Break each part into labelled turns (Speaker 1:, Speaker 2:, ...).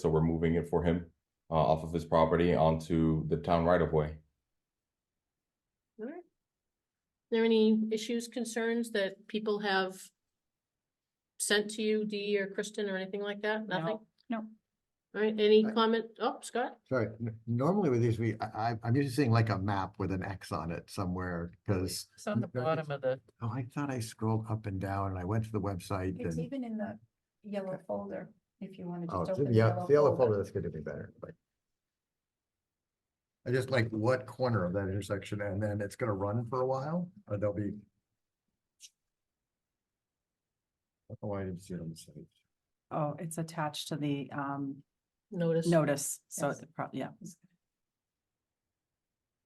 Speaker 1: so we're moving it for him uh, off of his property onto the town right of way.
Speaker 2: there any issues, concerns that people have sent to you, Dee or Kristen or anything like that? Nothing?
Speaker 3: no.
Speaker 2: All right, any
Speaker 4: Right.
Speaker 2: comment? Oh, Scott?
Speaker 4: Sorry, n- normally with these, we, I, I- I'm used to seeing like a map with an X on it somewhere, because,
Speaker 5: It's on the
Speaker 4: No,
Speaker 5: bottom of the,
Speaker 4: oh, I thought I scrolled up and down and I went to the website
Speaker 3: It's
Speaker 4: and.
Speaker 3: even in the yellow folder, if you want to
Speaker 4: Oh,
Speaker 3: just
Speaker 4: it's
Speaker 3: open.
Speaker 4: in- yeah, it's the yellow folder, that's gonna be better, but. I just like what corner of that intersection, and then it's gonna run for a while, or there'll be. Oh, I didn't see it on the site.
Speaker 6: Oh, it's attached to the um
Speaker 2: Notice.
Speaker 6: notice, so
Speaker 3: Yes.
Speaker 6: it prob- yeah.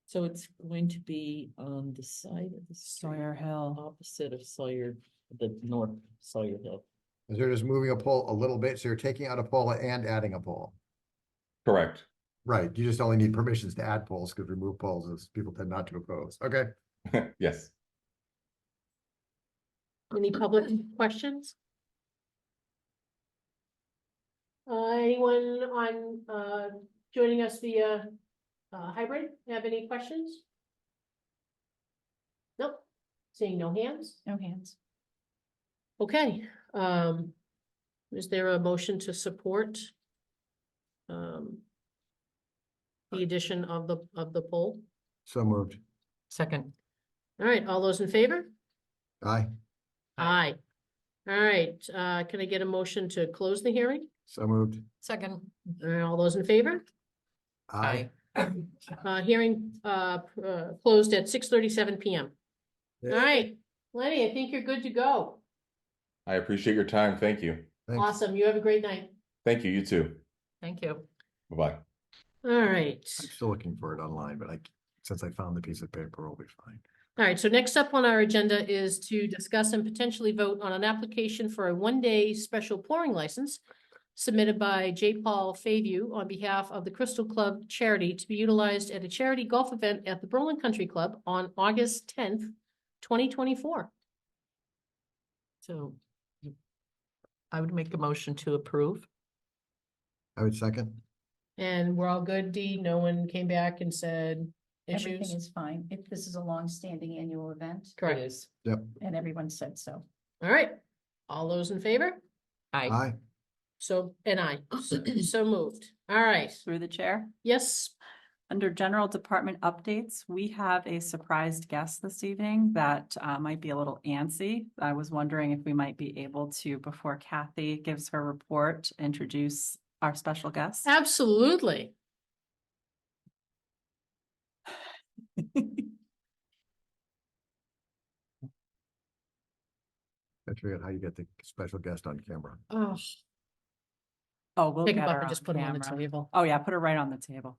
Speaker 5: so it's going to be on the side of the street,
Speaker 6: Sawyer Hill,
Speaker 5: opposite of Sawyer, the north Sawyer Hill.
Speaker 4: Is they're just moving a pole a little bit, so you're taking out a pole and adding a pole.
Speaker 1: Correct.
Speaker 4: Right, you just only need permissions to add polls, because remove polls is people tend not to oppose, okay?
Speaker 1: yes.
Speaker 2: Any public questions? Uh, anyone on, uh, joining us via, uh, hybrid, have any questions? Nope, seeing no hands.
Speaker 3: No hands.
Speaker 2: Okay, um, is there a motion to support? Um. The addition of the, of the poll?
Speaker 4: So moved.
Speaker 5: Second.
Speaker 2: All right, all those in favor?
Speaker 4: Aye,
Speaker 2: Aye. All right, uh, can I get a motion to close the hearing?
Speaker 4: so moved.
Speaker 5: Second.
Speaker 2: All right, All those in favor?
Speaker 4: Aye.
Speaker 2: Uh, hearing, uh, pr- uh, closed at six thirty-seven PM. All
Speaker 4: Yeah.
Speaker 2: right, Lenny, I think you're good to go.
Speaker 1: I appreciate your time. Thank you.
Speaker 4: Thanks.
Speaker 2: Awesome, you have a great night.
Speaker 1: Thank you. You too.
Speaker 5: Thank you.
Speaker 1: Bye bye.
Speaker 2: All right.
Speaker 4: I'm still looking for it online, but I, since I found the piece of paper, we'll be fine.
Speaker 2: All right, so next up on our agenda is to discuss and potentially vote on an application for a one-day special pouring license submitted by J. Paul Fayview on behalf of the Crystal Club charity to be utilized at a charity golf event at the Berlin Country Club on August tenth, twenty twenty-four.
Speaker 5: So you- I would make a motion to approve.
Speaker 4: I would second.
Speaker 2: And we're all good, Dee? No one came back and said
Speaker 3: Everything
Speaker 2: issues?
Speaker 3: is fine. If this is a long-standing annual event
Speaker 5: It
Speaker 2: Correct.
Speaker 5: is.
Speaker 3: and everyone said so.
Speaker 2: All right. All those in favor?
Speaker 5: Aye.
Speaker 4: Aye,
Speaker 2: So, and I, so moved. All right.
Speaker 6: through the chair.
Speaker 2: Yes,
Speaker 6: Under general department updates, we have a surprised guest this evening that uh, might be a little antsy. I was wondering if we might be able to, before Kathy gives her report, introduce our special guest.
Speaker 2: absolutely.
Speaker 4: I figured how you get the special guest on camera.
Speaker 2: Oh,
Speaker 6: Oh, we'll
Speaker 2: pick
Speaker 6: get
Speaker 2: him up
Speaker 6: her
Speaker 2: and just put
Speaker 6: on
Speaker 2: him on the
Speaker 6: camera.
Speaker 2: table.
Speaker 6: Oh, yeah, put her right on the table.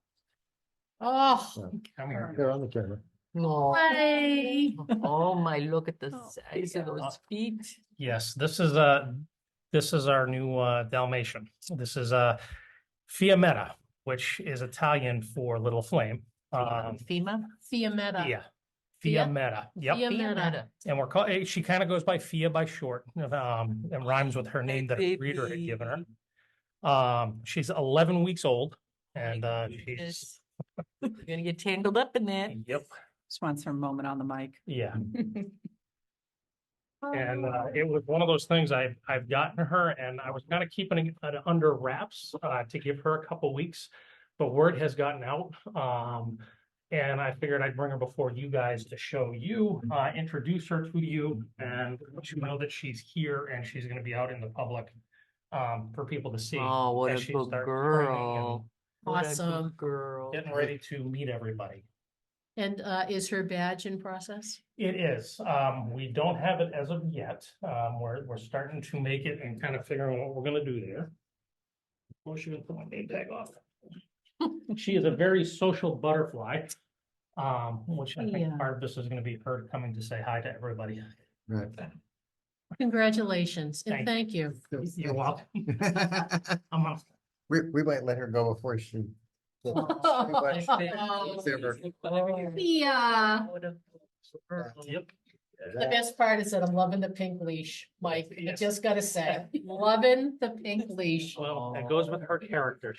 Speaker 2: Oh,
Speaker 4: They're on the camera.
Speaker 5: No.
Speaker 2: way.
Speaker 5: Oh, my, look at the
Speaker 6: Oh,
Speaker 5: size of
Speaker 7: Uh,
Speaker 5: those feet.
Speaker 7: Yes, this is uh this is our new uh Dalmatian. This is uh Fiametta, which is Italian for little flame. Um,
Speaker 5: FEMA?
Speaker 2: Fiametta.
Speaker 7: yeah.
Speaker 2: Fia-
Speaker 7: Fiametta, yep.
Speaker 2: Fiametta.
Speaker 5: Fiametta.
Speaker 7: And we're call, eh, she kind of goes by Fia by short, um, and rhymes with her name that her breeder had given her. Um, she's eleven weeks old and uh she's,
Speaker 5: Goodness. You're gonna get tangled up in that.
Speaker 7: yep,
Speaker 6: Just wants her moment on the mic.
Speaker 7: yeah. And uh, it was one of those things I've, I've gotten her and I was kind of keeping it uh, under wraps uh, to give her a couple weeks. But word has gotten out. Um, and I figured I'd bring her before you guys to show you, uh, introduce her to you and let you know that she's here and she's going to be out in the public um, for people to see.
Speaker 5: Oh, what
Speaker 7: as
Speaker 5: a
Speaker 7: she
Speaker 5: good
Speaker 7: starts training and
Speaker 5: girl. What a good
Speaker 2: Awesome.
Speaker 5: Girl.
Speaker 7: Getting ready to meet everybody.
Speaker 2: And uh, is her badge in process?
Speaker 7: It is. Um, we don't have it as of yet. Um, we're, we're starting to make it and kind of figuring what we're gonna do there. Before she even put my name tag off. She is a very social butterfly. Um, which I
Speaker 2: Yeah.
Speaker 7: think part of this is gonna be her coming to say hi to everybody.
Speaker 4: Right.
Speaker 2: Congratulations and thank
Speaker 7: Thank
Speaker 2: you.
Speaker 7: You're welcome. I'm off.
Speaker 4: We, we might let her go before she.
Speaker 2: Oh,
Speaker 4: Whatever.
Speaker 2: Yeah.
Speaker 5: What a girl.
Speaker 7: Yep.
Speaker 2: The best part is that I'm loving the pink leash, Mike. I just gotta say, loving the pink leash.
Speaker 7: Well, that goes with her character.